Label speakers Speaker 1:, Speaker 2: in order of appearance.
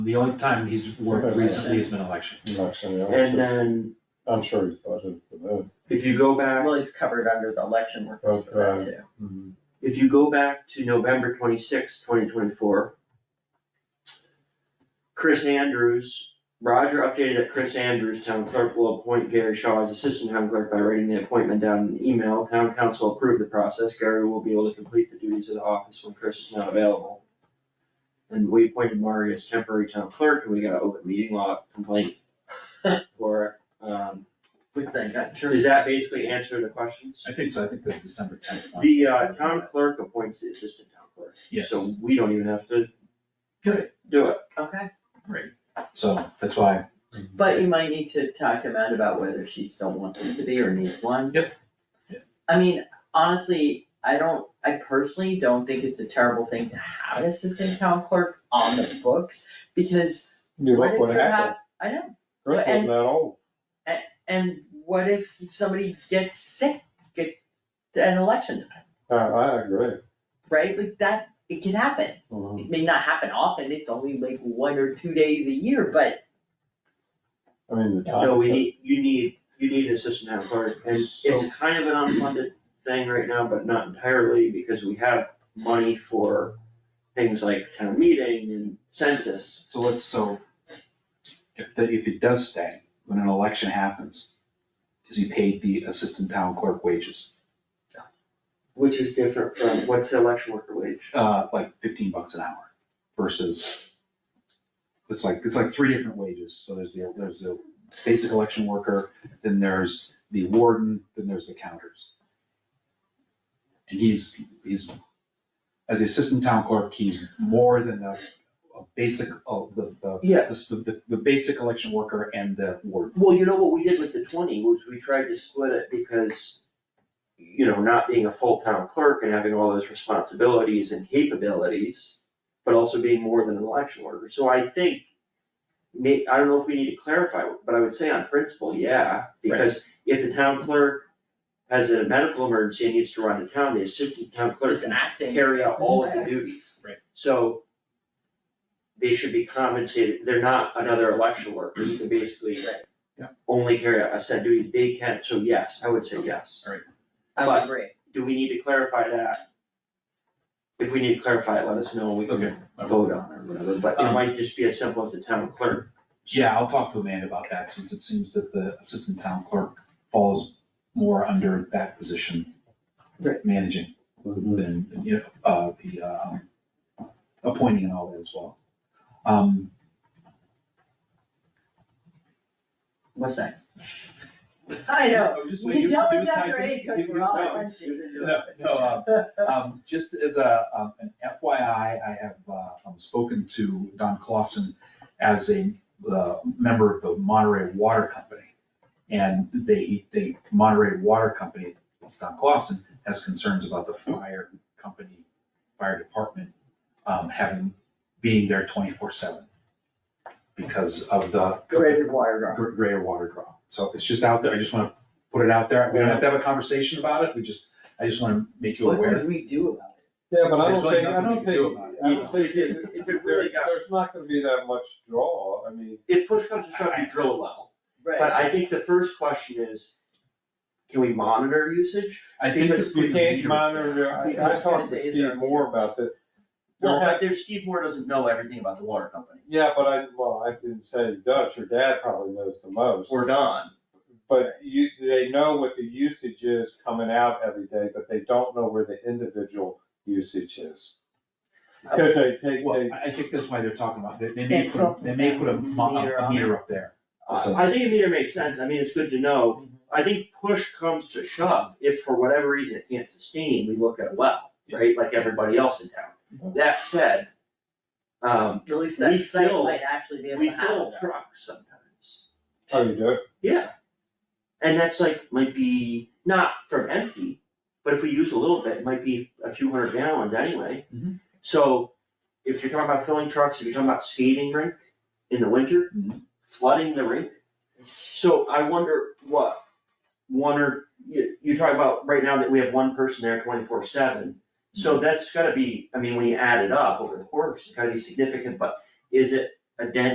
Speaker 1: The only time he's worked recently has been election.
Speaker 2: Actually, I'm
Speaker 3: And uh,
Speaker 2: sure,
Speaker 3: then
Speaker 2: I'm sure he's budgeted for
Speaker 3: if you go back,
Speaker 4: Well, he's covered under the election workers for that too.
Speaker 2: that. Mhm.
Speaker 3: if you go back to November twenty-sixth, twenty twenty-four, Chris Andrews, Roger updated that Chris Andrews, town clerk, will appoint Gary Shaw as assistant town clerk by writing the appointment down in an email. Town council approved the process. Gary will be able to complete the duties of the office when Chris is not available. And we appointed Mari as temporary town clerk, and we got an open meeting law complaint for, it. um,
Speaker 4: Good thing, that sure
Speaker 3: does that basically answer the questions?
Speaker 1: I think so, I think the December tenth one.
Speaker 3: The uh, town clerk appoints the assistant town clerk.
Speaker 1: Yes,
Speaker 3: So we don't even have to
Speaker 1: Do it.
Speaker 3: do it.
Speaker 4: okay.
Speaker 1: so that's why,
Speaker 4: But you might need to talk to Matt about whether she still wants him to be or needs one.
Speaker 1: Yep. Yeah.
Speaker 4: I mean, honestly, I don't, I personally don't think it's a terrible thing to have an assistant town clerk on the books, because
Speaker 2: You look
Speaker 4: what if
Speaker 2: what
Speaker 4: you
Speaker 2: happened,
Speaker 4: have, I know,
Speaker 2: Chris wasn't that old,
Speaker 4: and what if somebody gets sick, get, an election time,
Speaker 2: I, I agree.
Speaker 4: right? Like that, it can happen.
Speaker 2: Mhm.
Speaker 4: It may not happen often, it's only like one or two days a year, but
Speaker 2: I mean, the time.
Speaker 3: No, we need, you need, you need an assistant town clerk, and
Speaker 2: So-
Speaker 3: it's kind of an unfunded thing right now, but not entirely, because we have money for things like town meeting and census.
Speaker 1: so let's, so if, the- if it does stay, when an election happens, is he paid the assistant town clerk wages?
Speaker 3: Which is different from, what's the election worker wage?
Speaker 1: Uh, like fifteen bucks an hour versus, it's like, it's like three different wages. So there's the, there's the basic election worker, then there's the warden, then there's the counters. And he's, he's, as the assistant town clerk, he's more than the, a basic, oh, the, the
Speaker 3: Yeah,
Speaker 1: This, the, the, the basic election worker and the warden.
Speaker 3: Well, you know what we did with the twenty, was we tried to split it because, you know, not being a full town clerk and having all those responsibilities and capabilities, but also being more than an election worker, so I think, may, I don't know if we need to clarify, but I would say on principle, yeah, because if the town clerk has a medical emergency and needs to run to town, the assistant town clerk
Speaker 4: just
Speaker 3: can
Speaker 4: acting.
Speaker 3: carry out all of the duties.
Speaker 1: Right.
Speaker 3: So they should be compensated, they're not another election worker, you can basically
Speaker 4: Right.
Speaker 1: Yeah.
Speaker 3: only carry out a set of duties, they can, so yes, I would say yes.
Speaker 4: I would
Speaker 3: But-
Speaker 4: agree.
Speaker 3: Do we need to clarify that? If we need to clarify it, let us know, we can vote on it or whatever, but it
Speaker 1: Um,
Speaker 3: might just be as simple as the town clerk.
Speaker 1: Yeah, I'll talk to Amanda about that, since it seems that the assistant town clerk falls more under that position.
Speaker 4: Right.
Speaker 1: Managing
Speaker 2: Mhm.
Speaker 1: than, you know, uh, the, um, appointing and all that as well. Um,
Speaker 4: What's next? I know, you can tell it's after eight, cause we're all crunchy.
Speaker 1: No, no, um, um, just as a, um, an FYI, I have, uh, um, spoken to Don Clausen as a, uh, member of the Monterey Water Company. And they, they, Monterey Water Company, it's Don Clausen, has concerns about the fire company, fire department, um, having, being there twenty-four seven because of the
Speaker 4: Graded wire rod.
Speaker 1: gr- greater water draw. So it's just out there, I just wanna put it out there, we don't have to have a conversation about it, we just, I just wanna make you
Speaker 4: What
Speaker 1: aware.
Speaker 4: do we do about it?
Speaker 2: Yeah, but I
Speaker 1: There's
Speaker 2: don't
Speaker 1: really
Speaker 2: think, I
Speaker 1: nothing
Speaker 2: don't
Speaker 1: we can do
Speaker 2: think,
Speaker 1: about it.
Speaker 2: I don't think,
Speaker 3: If it- if it really
Speaker 2: there-
Speaker 3: got-
Speaker 2: there's not gonna be that much draw, I mean.
Speaker 3: If push comes to shove, you drill a well, but
Speaker 4: Right,
Speaker 3: I think the first question is, can we monitor usage?
Speaker 1: I think
Speaker 3: Because
Speaker 1: it's
Speaker 2: You can't
Speaker 1: leader-
Speaker 2: monitor,
Speaker 4: I
Speaker 2: I, I
Speaker 4: was gonna
Speaker 2: talked
Speaker 4: say,
Speaker 2: to
Speaker 4: is there-
Speaker 2: Steve Moore about that.
Speaker 3: Well,
Speaker 2: There-
Speaker 3: but there's, Steve Moore doesn't know everything about the water company,
Speaker 2: Yeah, but I, well, I didn't say he does, your dad probably knows the most.
Speaker 3: or Don.
Speaker 2: But you, they know what the usage is coming out every day, but they don't know where the individual usage is. Cause they take,
Speaker 1: Well,
Speaker 2: they,
Speaker 1: I I think that's why they're talking about, they, they may
Speaker 4: They
Speaker 1: put, they may put a mo-
Speaker 4: Meter
Speaker 1: a
Speaker 4: on
Speaker 1: meter up there.
Speaker 3: Uh, I think a meter makes sense, I mean, it's good to know, I think push comes to shove, if for whatever reason it can't sustain, we look at a well, right, like everybody else in town. That said, um,
Speaker 4: at least that
Speaker 3: we
Speaker 4: site
Speaker 3: still-
Speaker 4: might actually be able to
Speaker 3: we fill
Speaker 4: have that.
Speaker 3: trucks sometimes,
Speaker 2: oh, you do it?
Speaker 3: yeah. And that's like, might be not from empty, but if we use a little bit, it might be a few hundred gallons anyway.
Speaker 1: Mhm.
Speaker 3: So, if you're talking about filling trucks, if you're talking about skating rink in the winter,
Speaker 1: Mhm.
Speaker 3: flooding the rink, so I wonder what, one or, you, you talk about right now that we have one person there twenty-four seven. So that's gotta be, I mean, when you add it up over the course, it's gotta be significant, but is it a dent